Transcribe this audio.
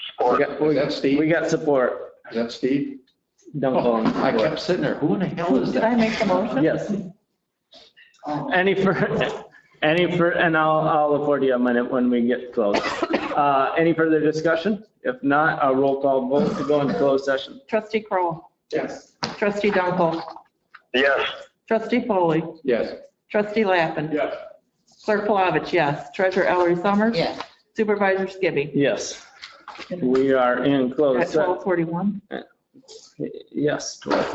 Or We got- is that We Steve? got support. Is that Steve? Don't call him. I kept sitting there. Who in the hell is Did I that? make the motion? Yes. Any fur, any fur, and I'll, I'll afford you a minute when we get close. Uh, any further discussion? If not, a roll call vote to go into closed session. Trustee Kroll, Yes. trustee Dunkel, Yes. trustee Foley, Yes. trustee Lappin, Yes. clerk Palovich, yes, treasurer Ellery Summers. Yes. Supervisor Skibby. Yes. We are in closed. At se- 12:41. Yes, 12.